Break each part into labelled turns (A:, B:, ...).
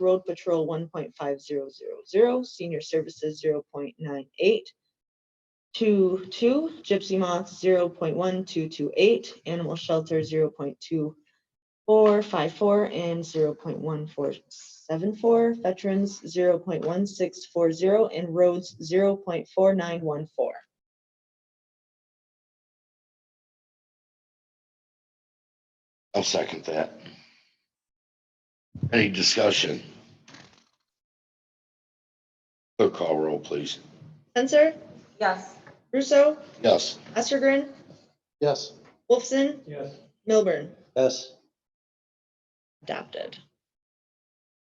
A: road patrol one point five zero zero zero, senior services zero point nine eight. Two, two, gypsy moth zero point one two two eight, animal shelter zero point two four five four and zero point one four seven four, veterans zero point one six four zero, and roads zero point four nine one four.
B: I'll second that. Any discussion? Clerk call roll, please.
A: Censor,
C: yes,
A: Russo,
B: Yes.
A: Astorgren,
D: Yes.
A: Wolfson,
D: Yes.
A: Milburn,
D: Yes.
A: adopted.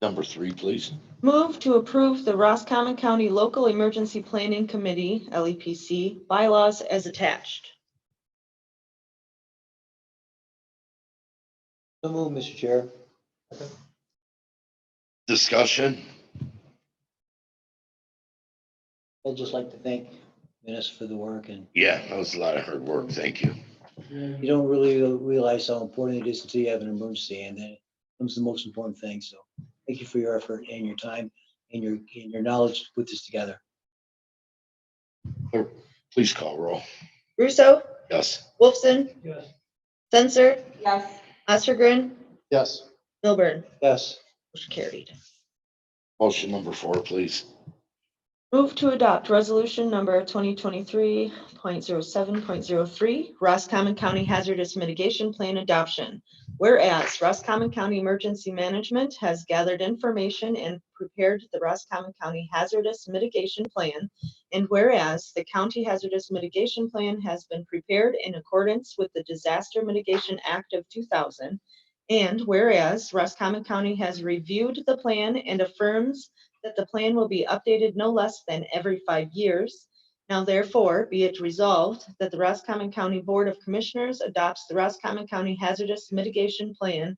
B: Number three, please.
A: Move to approve the Roscommon County Local Emergency Planning Committee, LEPC, bylaws as attached.
D: So move, Mr. Chair.
B: Discussion?
D: I'd just like to thank Dennis for the work and
B: Yeah, that was a lot of hard work. Thank you.
D: you don't really realize how important it is until you have an emergency and then it becomes the most important thing. So thank you for your effort and your time and your, and your knowledge to put this together.
B: Please call roll.
A: Russo,
B: Yes.
A: Wolfson,
D: Yes.
A: Censor,
C: yes,
A: Astorgren,
D: Yes.
A: Milburn,
D: Yes.
A: motion carried.
B: Motion number four, please.
A: Move to adopt resolution number 2023.07.03, Roscommon County Hazardous Mitigation Plan Adoption. Whereas Roscommon County Emergency Management has gathered information and prepared the Roscommon County Hazardous Mitigation Plan. And whereas the County Hazardous Mitigation Plan has been prepared in accordance with the Disaster Mitigation Act of 2000. And whereas Roscommon County has reviewed the plan and affirms that the plan will be updated no less than every five years. Now therefore, be it resolved that the Roscommon County Board of Commissioners adopts the Roscommon County Hazardous Mitigation Plan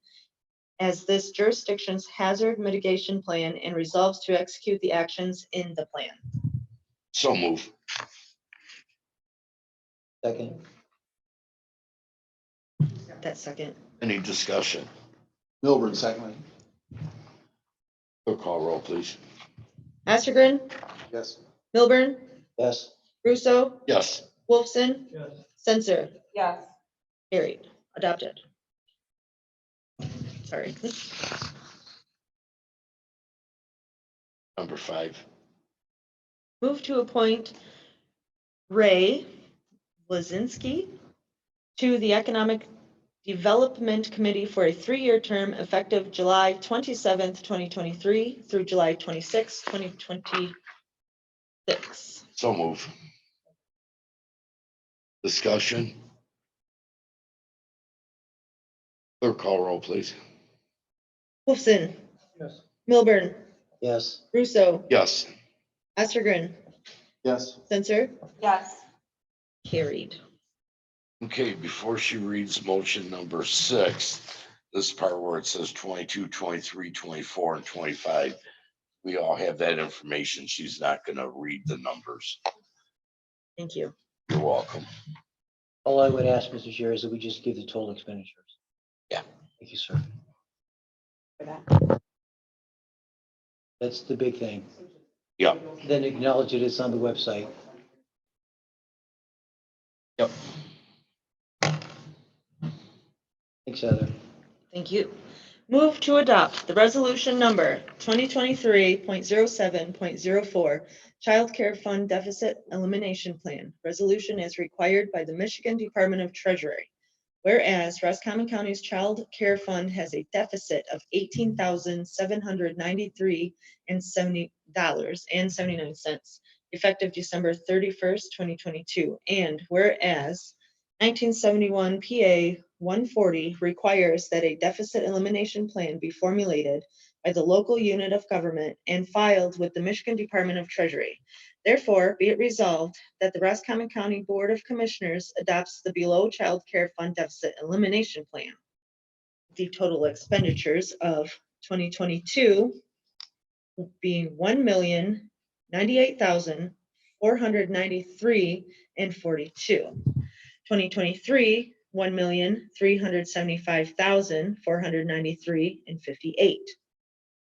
A: as this jurisdiction's hazard mitigation plan and resolves to execute the actions in the plan.
B: So move.
D: Second.
A: That second.
B: Any discussion?
E: Milburn, secondly.
B: Clerk call roll, please.
A: Astorgren,
E: Yes.
A: Milburn,
D: Yes.
A: Russo,
B: Yes.
A: Wolfson,
D: Yes.
A: Censor,
C: yes,
A: carried, adopted. Sorry.
B: Number five.
A: Move to appoint Ray Blazinski to the Economic Development Committee for a three-year term effective July twenty-seventh, twenty twenty-three through July twenty-sixth, twenty twenty-six.
B: So move. Discussion? Clerk call roll, please.
A: Wolfson.
D: Yes.
A: Milburn.
D: Yes.
A: Russo.
B: Yes.
A: Astorgren.
E: Yes.
A: Censor.
C: yes,
A: Carried.
B: Okay, before she reads motion number six, this part where it says 22, 23, 24, and twenty-five. We all have that information. She's not gonna read the numbers.
A: Thank you.
B: You're welcome.
D: All I would ask, Mr. Chair, is that we just give the total expenditures.
B: Yeah.
D: Thank you, sir.
C: for that.
D: That's the big thing.
B: Yeah.
D: Then acknowledge it is on the website.
B: Yep.
D: Thanks, Heather.
A: Thank you. Move to adopt the resolution number twenty twenty-three point zero seven point zero four, Child Care Fund Deficit Elimination Plan, resolution as required by the Michigan Department of Treasury. Whereas Roscommon County's Child Care Fund has a deficit of eighteen thousand seven hundred ninety-three and seventy dollars and seventy-nine cents, effective December thirty-first, twenty twenty-two. And whereas 1971 PA 140 requires that a deficit elimination plan be formulated by the local unit of government and filed with the Michigan Department of Treasury. Therefore, be it resolved that the Roscommon County Board of Commissioners adopts the below Child Care Fund Deficit Elimination Plan. The total expenditures of 2022 being 1,098,493 and 42. 2023, one million, three hundred seventy-five thousand, four hundred ninety-three and fifty-eight.